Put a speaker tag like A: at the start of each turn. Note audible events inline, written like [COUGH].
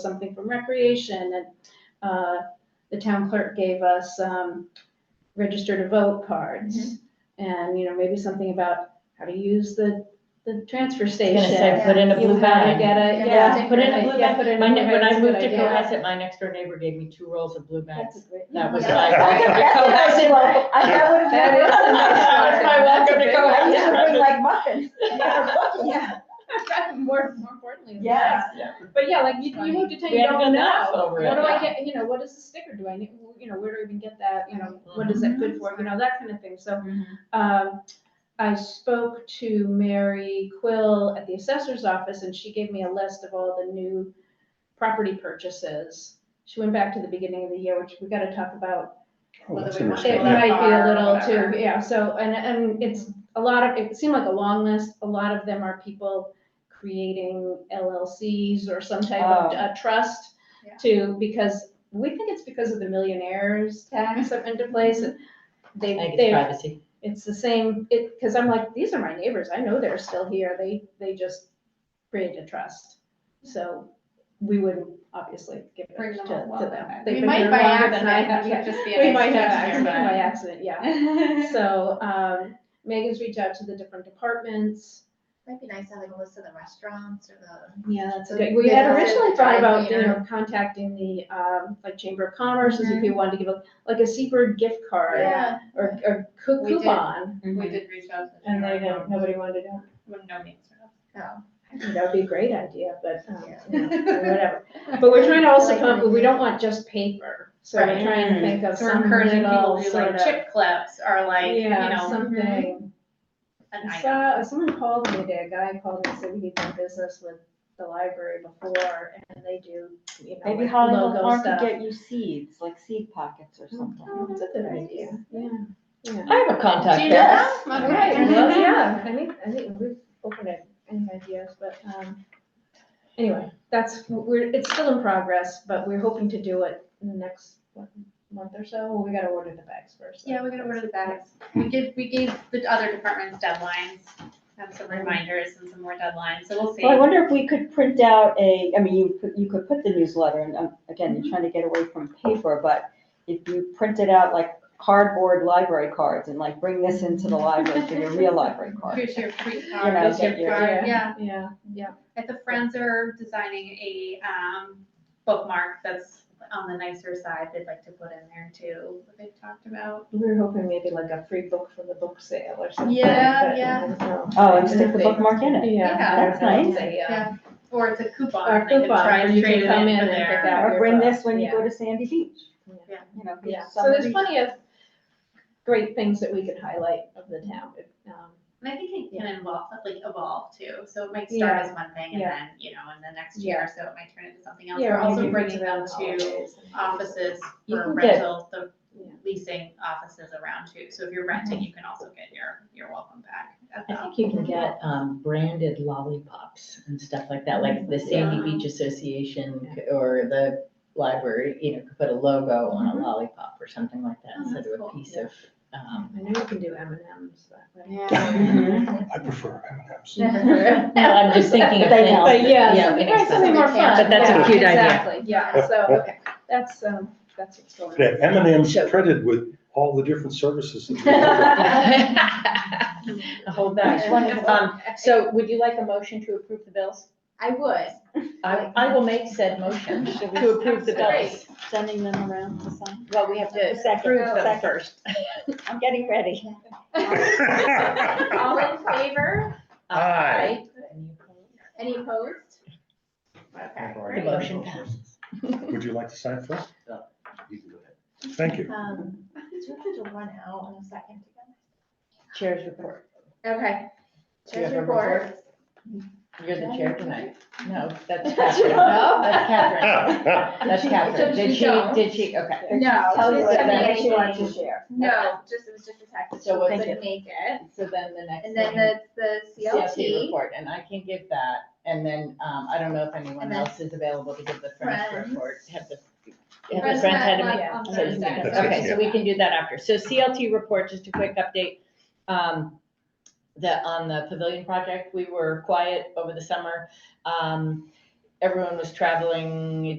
A: something from recreation, and uh, the town clerk gave us um, register to vote cards.
B: Mm-hmm.
A: And, you know, maybe something about how to use the, the transfer
B: I was
A: station.
B: gonna say, put in a
A: You
B: blue
A: gotta
B: bag.
A: get a,
C: Yeah,
A: yeah.
B: Put in a blue
A: yeah,
B: bag.
A: put in a
B: My
A: blue
B: ne- When
A: bag,
B: I
A: it's a
B: moved to
A: good idea.
B: Cohasset, my next door neighbor gave me two rolls of blue
A: That's a
B: bags.
A: great.
B: That was
C: Yeah.
B: my.
C: That's a That would have
A: That
C: been.
A: is a nice
B: [LAUGHS] That was my welcome to
A: one.
C: I used to
B: Cohasset.
C: bring
A: [LAUGHS]
C: like muffins.
A: Yeah. [LAUGHS] More, more importantly. than
C: Yes.
A: that. But yeah, like you, you moved to town,
B: We
A: you
B: had a
A: don't
B: good laugh
A: know.
B: over
A: What do
B: it.
A: I get, you know, what is the sticker? Do I need, you know, where do I even get that? You know, what is that good for? You know, that kind of thing. So
B: Mm-hmm.
A: Um, I spoke to Mary Quill at the assessor's office and she gave me a list of all the new property purchases. She went back to the beginning of the year, which we gotta talk about.
D: Oh, that's
E: Whether we want
A: It
E: Sure.
D: interesting.
E: to-
A: might be a little
E: Whatever.
A: too, yeah, so, and, and it's a lot of, it seemed like a long list. A lot of them are people creating LLCs or some type of
B: Oh.
A: uh, trust
E: Yeah.
A: to, because we think it's because of the millionaires tax up into place. and They,
B: Mm-hmm. I
A: they
B: guess privacy.
A: it's the same, it, because I'm like, these are my neighbors, I know they're still here, they, they just created a trust. So we wouldn't obviously give it
E: Bring
A: to,
E: them
A: to
E: up.
A: them. They've
E: We
A: been
E: might
A: here
E: by
A: longer than I have,
E: accident,
A: yeah.
E: it could just be an
A: We might have
E: accident,
A: accident, by
E: but-
A: accident, yeah.
E: [LAUGHS]
A: So, um, Megan's reached out to the different departments.
F: Might be nice to have like a list of the restaurants or the.
A: Yeah, that's
F: a
A: good.
F: good-
A: We had
F: good
A: originally
F: idea.
A: thought about, you know,
F: Yeah.
A: contacting the, um, like Chamber of Commerce, and see if we wanted to give a, like a Seabird gift card
E: Yeah.
A: or, or cou-
E: We did.
A: coupon.
B: [LAUGHS]
E: We did reach out to. the
A: And they,
E: general
A: didn't-
E: counsel.
A: nobody wanted to do it.
E: Wouldn't know me, so.
F: Oh,
A: I think That would be a great idea, but, um,
F: Yeah.
A: you know,
C: [LAUGHS]
A: whatever. But we're trying to also
F: Like
A: come,
F: the-
A: we don't want just paper, so we're
E: Right.
A: trying to think of
E: So we're
A: some
E: encouraging people
A: little
E: to do
A: sort
E: like
A: of.
E: chip clips or like, you
A: Yeah, uh,
E: know,
A: something. I
E: an item.
A: saw, someone called me today, a guy called me, and said we had done business with the library before, and they do, you know,
B: Maybe
A: like
B: Hollywood
A: logo
B: Park could
A: stuff.
B: get you seeds, like seed pockets or something.
A: Oh, that's a good idea, yeah, yeah.
B: I have a
E: Do
B: contact
E: you
B: there.
E: know that?
A: Right,
E: Okay.
A: well, yeah, I think, I think we've opened it, any ideas, but, um, anyway, that's, we're, it's still in progress, but we're hoping to do it in the next, what, month or so, we gotta order the bags first. so
E: Yeah, we're gonna order the
A: that's-
E: bags. We give, we gave the other departments deadlines, have some reminders and some more deadlines, so we'll see.
B: Well, I wonder if we could print out a, I mean, you, could- you could put the newsletter, and um, again, you're trying to get away from paper, but if you printed out like cardboard library cards and like bring this into the library for your real library
A: [LAUGHS]
B: card.
E: Here's your free
B: You
E: card,
B: know,
E: here's
B: get
E: your
B: your-
E: card, yeah.
A: Yeah, yeah,
E: If the Friends are designing a um, bookmark that's on the nicer side, they'd like to put in there too, what they've talked about.
A: we were hoping maybe like a free book from the book sale or something.
E: Yeah,
A: but,
E: yeah.
A: um, no.
B: Oh, and stick the bookmark in it,
A: Yeah.
E: Yeah,
B: that's nice.
A: Yeah.
E: Or it's a coupon,
A: Or
E: they could
A: coupon,
E: try
A: or
E: and
A: you can
E: trade it in
A: come in
E: for
A: and pick
E: their.
A: out
B: or
A: your
B: bring
A: book,
B: this when you go to Sandy Beach.
E: Yeah.
B: You know,
A: Yeah,
B: give
A: so there's
B: somebody-
A: plenty of great things that we could highlight of the town, if, um,
E: And I think it can involve, like evolve too, so it might start as one thing and
A: Yeah.
E: then, you know, in the next year or so, it might turn into something else.
A: Yeah,
E: We're
A: or
E: also
A: maybe
E: bringing
A: around
E: them
A: the
E: to
A: holidays.
E: offices
B: You
E: for
B: can get-
E: rental, the
A: Yeah.
E: leasing offices around too, so if you're renting, you can also get your, your welcome back. at the
B: I think you can get um, branded lollipops and stuff like that, like the Sandy Beach Association c- or the library, you know, could put a logo on a lollipop or something like that
E: Oh,
B: instead
E: that's
B: of a
E: cool.
B: piece of.
A: [LAUGHS]
B: um,
A: I know we can do M and M's, but. [LAUGHS]
E: [LAUGHS]
C: Mm-hmm.
D: I prefer M and M's.
A: But
B: No, I'm just thinking of They things. know.
A: but yeah,
B: Yeah,
A: something, right, something
B: inexpensive.
A: more fun.
B: But that's a
A: yeah,
B: cute idea.
A: Exactly, yeah, so, okay, that's, um, that's what's going on.
D: Yeah, M and M's
B: Sure.
D: printed with all the different services. that we have.
B: [LAUGHS] A whole bunch.
E: Wonderful.
B: Um, So would you like a motion to approve the bills?
F: I would.
B: I, I will make said [LAUGHS] motion to approve the bills.
C: Sending them around to some.
B: Well, we have to approve them first. I'm getting ready.
D: [LAUGHS]
E: All in favor?
D: Aye.
F: Any opposed?
E: Okay,
B: The
E: great.
B: motion passes.
D: Would you like to sign first?
G: No, you can go ahead.
D: Thank you.
F: Um, do we have to run out in a second to
B: Chair's report.
F: get? Okay.
B: Do you
F: Chair's
B: have a
F: report.
B: You're the chair tonight. No, that's
C: That's
B: Catherine.
F: wrong.
B: That's [LAUGHS] Catherine.
D: [LAUGHS]
B: That's [LAUGHS]
F: She-
B: Catherine.
F: so
B: Did
F: she
B: she,
F: don't.
B: did she, okay.
F: No.
B: Tell us
F: she
B: what
F: sent me
B: that
F: a
B: is you want to
F: change.
B: share.
F: No, just, it was just a text.
B: So
F: She
B: what's
F: couldn't
B: it?
F: Make it.
B: So then the next
F: And then
B: thing,
F: the, the
B: CLT
F: CLT.
B: report, and I can give that. And then, um, I don't know if anyone
F: And then-
B: else is available to give the friends
F: Friends.
B: report. Have the, have the
E: Friends
B: friends had a
E: met
B: meeting?
E: on
B: So you can
E: Thursday.
B: do that.
D: That's
B: Okay, so
D: it,
B: we can do that after. So CLT report, just a quick update. Um, The, on the pavilion project, we were quiet over the summer. Um, everyone was traveling, it